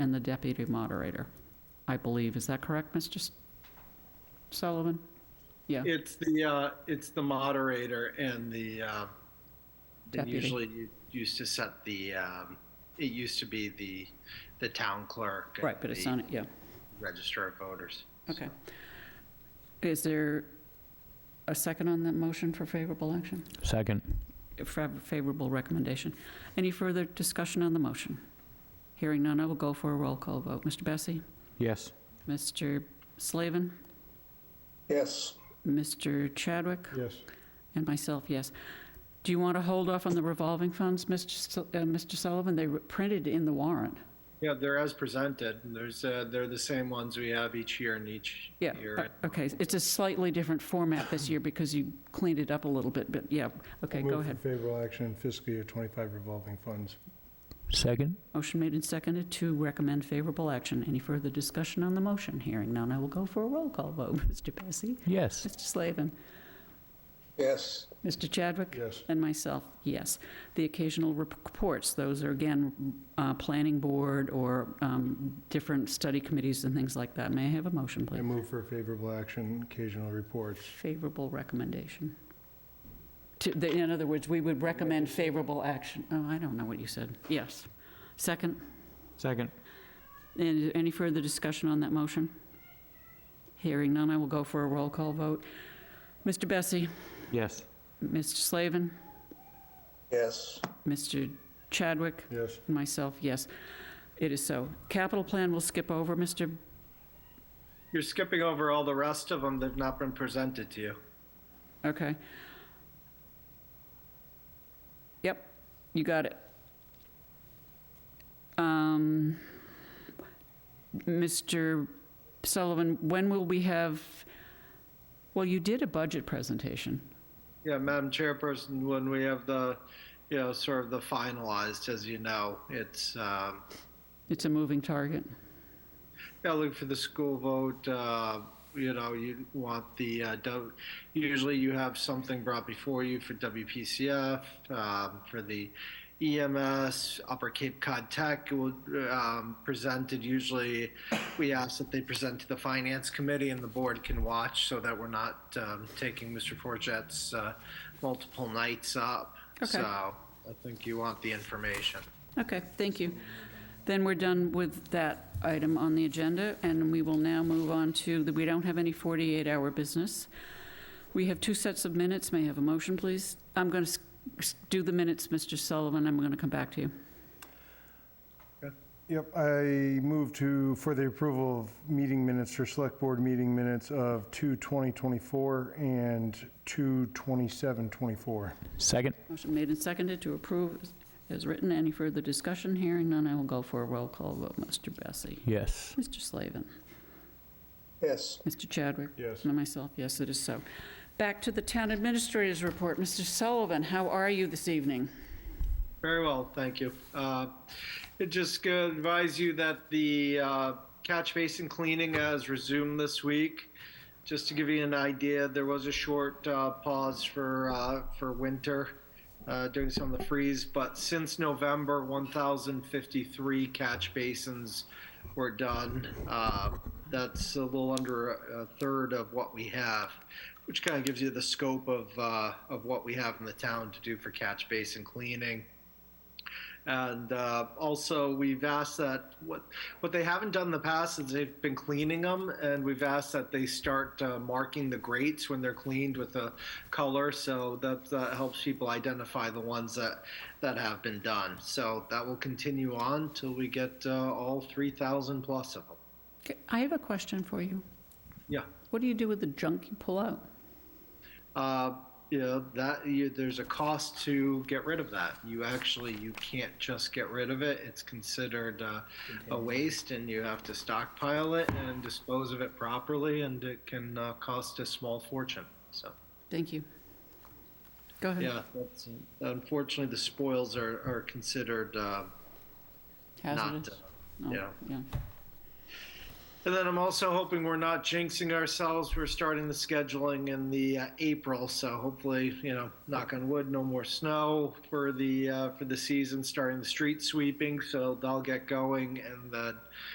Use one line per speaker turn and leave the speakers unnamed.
and the deputy moderator, I believe. Is that correct, Mr. S- Sullivan? Yeah,
It's the, uh, it's the moderator and the, uh, and
Deputy.
usually you used to set the, um, it used to be the, the town clerk. and
right, but it's
the
on it, yeah.
Register of voters.
Okay. Is there a second on that motion for favorable action,
Second.
for favorable recommendation? Any further discussion on the motion? Hearing none, I will go for a roll call vote. Mr. Bessie?
Yes.
Mr. Slavin?
Yes.
Mr. Chadwick?
Yes.
And myself, yes. Do you want to hold off on the revolving funds, Mr. Su- uh, Mr. Sullivan? They were printed in the warrant.
Yeah, they're as presented, and there's, uh, they're the same ones we have each year and each
Yeah,
year.
uh, okay, it's a slightly different format this year because you cleaned it up a little bit, but yeah, okay, go ahead.
Move for favorable action fiscal year 25 revolving funds.
Second?
Motion made and seconded to recommend favorable action. Any further discussion on the motion? Hearing none, I will go for a roll call vote. Mr. Bessie?
Yes.
Mr. Slavin?
Yes.
Mr. Chadwick?
Yes.
And myself, yes. The occasional reports, those are again, uh, planning board or um, different study committees and things like that. May I have a motion,
I
please?
move for favorable action occasional reports.
Favorable recommendation. To- the- In other words, we would recommend favorable action. Oh, I don't know what you said. Yes. Second,
Second.
and any further discussion on that motion? Hearing none, I will go for a roll call vote. Mr. Bessie?
Yes.
Mr. Slavin?
Yes.
Mr. Chadwick?
Yes.
And Myself, yes. It is so. Capital plan we'll skip over, Mr.
You're skipping over all the rest of them. They've not been presented to you.
Okay. Yep, you got it. Um, Mr. Sullivan, when will we have, well, you did a budget presentation.
Yeah, Madam Chairperson, when we have the, you know, sort of the finalized, as you know, it's, um,
It's a moving target.
Yeah, look for the school vote. Uh, you know, you want the uh, w, usually you have something brought before you for WPCF, um, for the EMS, Upper Cape Cod Tech will um, presented. Usually, we ask that they present to the Finance Committee and the board can watch, so that we're not um, taking Mr. Forget's uh, multiple nights up.
Okay.
So I think you want the information.
Okay, thank you. Then we're done with that item on the agenda, and we will now move on to, the we don't have any 48-hour business. We have two sets of minutes. May I have a motion, please? I'm going to do the minutes, Mr. Sullivan. I'm going to come back to you.
Yep, I move to, for the approval of meeting minutes or select board meeting minutes of 2/20/24 and 2/27/24.
Second?
Motion made and seconded to approve as written. Any further discussion? Hearing none, I will go for a roll call vote. Mr. Bessie?
Yes.
Mr. Slavin?
Yes.
Mr. Chadwick?
Yes.
And myself, yes, it is so. Back to the town administrator's report. Mr. Sullivan, how are you this evening?
Very well, thank you. Uh, it just uh, advise you that the uh, catch basin cleaning has resumed this week. Just to give you an idea, there was a short uh, pause for uh, for winter uh, during some of the freeze, but since November, 1,053 catch basins were done. Uh, that's a little under a, a third of what we have, which kind of gives you the scope of uh, of what we have in the town to do for catch basin cleaning. And uh, also, we've asked that what what they haven't done in the past is they've been cleaning them, and we've asked that they start uh, marking the grates when they're cleaned with a color, so that, that helps people identify the ones that that have been done. So that will continue on till we get uh, all three thousand plus of them.
Okay, I have a question for you.
Yeah.
What do you do with the junk you pull out?
Uh, you know that you, there's a cost to get rid of that. You actually you can't just get rid of it. It's considered uh, a waste, and you have to stockpile it and dispose of it properly, and it can uh, cost a small fortune. So
Thank you. Go ahead.
yeah, that's, unfortunately the spoils are are considered uh, not.
Hazardous? Oh,
uh,
No,
yeah.
Yeah.
And then I'm also hoping we're not jinxing ourselves. We're starting the scheduling in the uh, April, so hopefully, you know, knock on wood, no more snow for the uh, for the season. Starting the street sweeping, so they'll get going, and then